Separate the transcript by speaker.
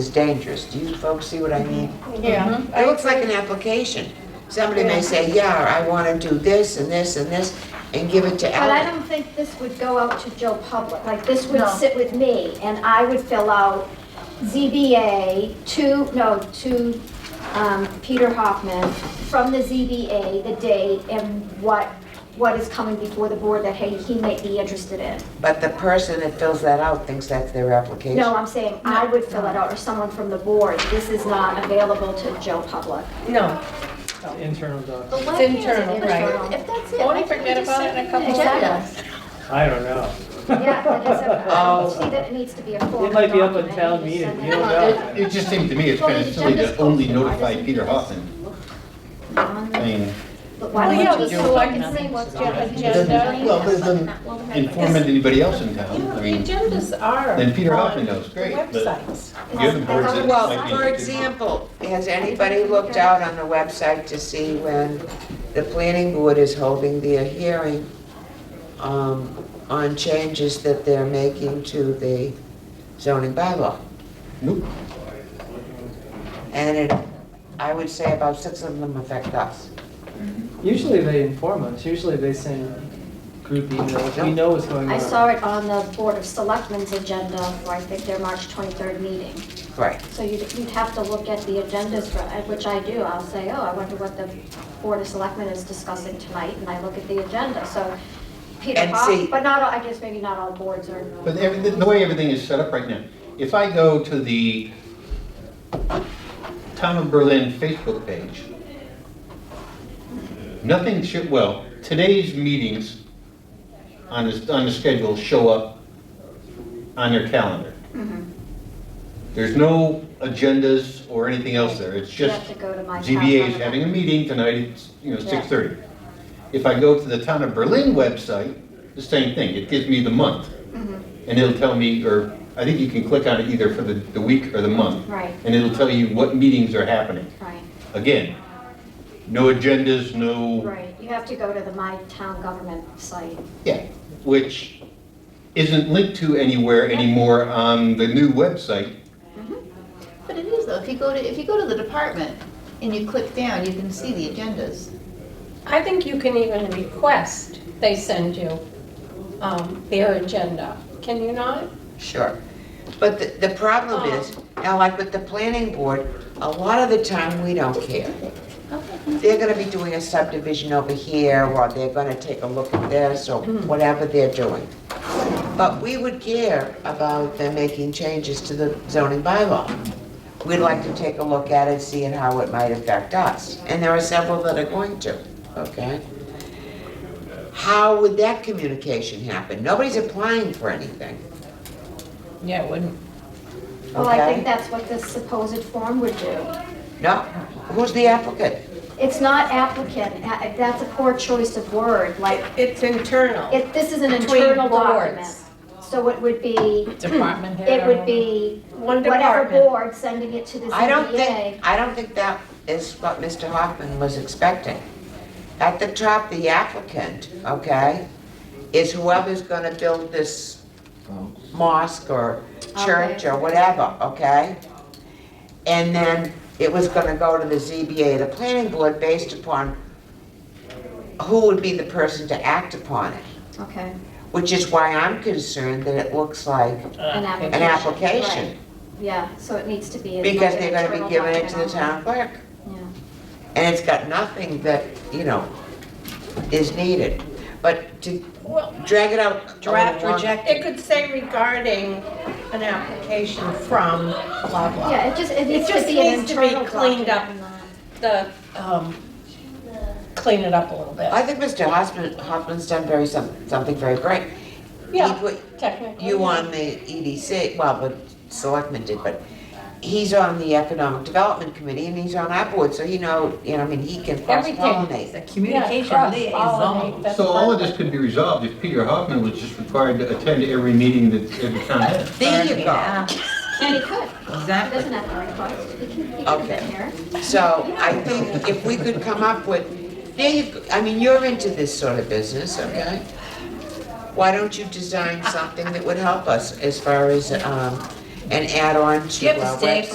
Speaker 1: is dangerous. Do you folks see what I mean?
Speaker 2: Yeah.
Speaker 1: It looks like an application. Somebody may say, yeah, I want to do this and this and this, and give it to
Speaker 3: But I
Speaker 1: Ellen.
Speaker 3: don't think this would go out to Joe Public, like, this would
Speaker 2: No.
Speaker 3: sit with me, and I would fill out ZBA to, no, to um, Peter Hoffman, from the ZBA, the date, and what, what is coming before the board that, hey, he may be interested in.
Speaker 1: But the person that fills that out thinks that's their application.
Speaker 3: No, I'm saying I would fill it out, or someone from the board, this is not available to Joe Public.
Speaker 2: No.
Speaker 4: internal doc.
Speaker 5: But why can't
Speaker 2: It's internal,
Speaker 5: it-
Speaker 2: right.
Speaker 5: If that's it.
Speaker 2: Won't we
Speaker 5: why can't
Speaker 2: forget
Speaker 5: just
Speaker 2: about
Speaker 5: set
Speaker 2: it in a couple of
Speaker 5: agenda?
Speaker 2: months?
Speaker 4: I don't know.
Speaker 3: Yeah, like I said, I
Speaker 1: Oh.
Speaker 3: don't see that it needs to be a formal
Speaker 4: It might be up
Speaker 3: document.
Speaker 4: at town
Speaker 3: You just
Speaker 4: meeting,
Speaker 3: send
Speaker 4: you
Speaker 3: it
Speaker 4: don't
Speaker 3: out.
Speaker 4: know.
Speaker 6: It just seems to me it's
Speaker 5: Well, the
Speaker 6: kind of silly
Speaker 5: agenda's
Speaker 6: to only
Speaker 5: posted. Why
Speaker 6: notify
Speaker 5: doesn't
Speaker 6: Peter
Speaker 5: it just
Speaker 6: Hoffman.
Speaker 5: look
Speaker 6: I mean,
Speaker 3: But why
Speaker 2: Well,
Speaker 3: don't
Speaker 2: yeah,
Speaker 3: you
Speaker 2: but
Speaker 3: just
Speaker 2: so I
Speaker 3: select
Speaker 2: can see what's your
Speaker 6: doesn't-
Speaker 2: agenda.
Speaker 6: well, it doesn't inform anybody else in
Speaker 5: You
Speaker 6: town.
Speaker 5: know,
Speaker 6: I
Speaker 5: the
Speaker 6: mean,
Speaker 5: agendas are.
Speaker 6: Then Peter
Speaker 5: on
Speaker 6: Hoffman knows, great, but-
Speaker 5: Websites.
Speaker 6: the other boards that might
Speaker 1: Well,
Speaker 6: be.
Speaker 1: for example, has anybody looked out on the website to see when the planning board is holding their hearing um, on changes that they're making to the zoning bylaw?
Speaker 6: Nope.
Speaker 1: And it, I would say about six of them affect us.
Speaker 4: Usually they inform us, usually they send group emails, we know what's going on.
Speaker 3: I saw it on the Board of Selectmen's agenda for, I think, their March 23rd meeting.
Speaker 1: Right.
Speaker 3: So you'd, you'd have to look at the agendas, for- uh, which I do. I'll say, oh, I wonder what the Board of Selectmen is discussing tonight, and I look at the agenda. So Peter
Speaker 1: And see-
Speaker 3: Hoff, but not, all I guess maybe not all boards are.
Speaker 6: But every, the way everything is set up right now, if I go to the Town of Berlin Facebook page, nothing should, well, today's meetings on the, on the schedule show up on their calendar.
Speaker 3: Mm-hmm.
Speaker 6: There's no agendas or anything else there, it's
Speaker 3: You
Speaker 6: just.
Speaker 3: have to go to my. town
Speaker 6: ZBA is
Speaker 3: government.
Speaker 6: having a meeting tonight, it's, you know,
Speaker 3: Yeah.
Speaker 6: 6:30. If I go to the Town of Berlin website, the same thing, it gives me the month. And it'll tell me, or I think you can click on it either for the, the week or the month.
Speaker 3: Right.
Speaker 6: And it'll tell you what meetings are happening.
Speaker 3: Right,
Speaker 6: Again, no agendas, no,
Speaker 3: right. You have to go to the my town government site.
Speaker 6: yeah, which isn't linked to anywhere anymore on the new website.
Speaker 5: But it is though, if you go to, if you go to the department and you click down, you can see the agendas.
Speaker 2: I think you can even request they send you um, their agenda, can you not?
Speaker 1: Sure. But the, the problem is, now like with the planning board, a lot of the time, we don't care. They're gonna be doing a subdivision over here, or they're gonna take a look at this, or whatever they're doing. But we would care about them making changes to the zoning bylaw. We'd like to take a look at it, see it, how it might affect us. And there are several that are going to, okay? How would that communication happen? Nobody's applying for anything.
Speaker 2: Yeah, it wouldn't.
Speaker 3: Well, Oh, I
Speaker 1: Okay.
Speaker 3: think that's what this supposed form would do.
Speaker 1: No, who's the applicant?
Speaker 3: It's not applicant, a- that's a poor choice of word, like,
Speaker 2: It's internal.
Speaker 3: it, this is an
Speaker 2: Between
Speaker 3: internal
Speaker 2: boards.
Speaker 3: document. So it would be, hmm,
Speaker 2: Department head.
Speaker 3: it would be
Speaker 2: One
Speaker 3: whatever
Speaker 2: department.
Speaker 3: board sending it to the
Speaker 1: I don't
Speaker 3: ZBA.
Speaker 1: think, I don't think that is what Mr. Hoffman was expecting. At the top, the applicant, okay, is whoever's gonna build this mosque or church or whatever, okay? And then it was gonna go to the ZBA, the planning board, based upon who would be the person to act upon it,
Speaker 3: Okay,
Speaker 1: which is why I'm concerned that it looks like
Speaker 3: an application.
Speaker 1: Uh, an application.
Speaker 3: right. Yeah, so it needs to be. a-
Speaker 1: Because they're gonna
Speaker 3: internal
Speaker 1: be giving it to the town
Speaker 3: document
Speaker 1: clerk,
Speaker 3: only.
Speaker 1: and it's got nothing that, you know, is needed. But to drag it out. Draft reject.
Speaker 7: It could say regarding an application from blah
Speaker 3: Yeah,
Speaker 7: blah.
Speaker 3: yeah, it just, it needs to
Speaker 7: just
Speaker 3: be an
Speaker 7: needs to be
Speaker 3: internal
Speaker 7: cleaned up.
Speaker 3: document, not-
Speaker 7: The, um, clean it up a little bit.
Speaker 1: I think Mr. Hoffman, Hoffman's done very, some- something very great. He
Speaker 7: Yeah,
Speaker 1: put
Speaker 7: technically.
Speaker 1: you on the EDC, well, but selectmen did, but he's on the Economic Development Committee, and he's on our board, so he know, you know, I mean, he can cross-pollinate.
Speaker 2: Everything. Communication liaison.
Speaker 6: So all of this could be resolved if Peter Hoffman was just required to attend every meeting that every town had.
Speaker 1: There you go.
Speaker 3: And he could, he doesn't have to request, he can, he can
Speaker 1: Okay.
Speaker 3: get here.
Speaker 1: So I think if we could come up with, there you, I mean, you're into this sort of business, okay? Why don't you design something that would help us as far as, um, an add-on to our website?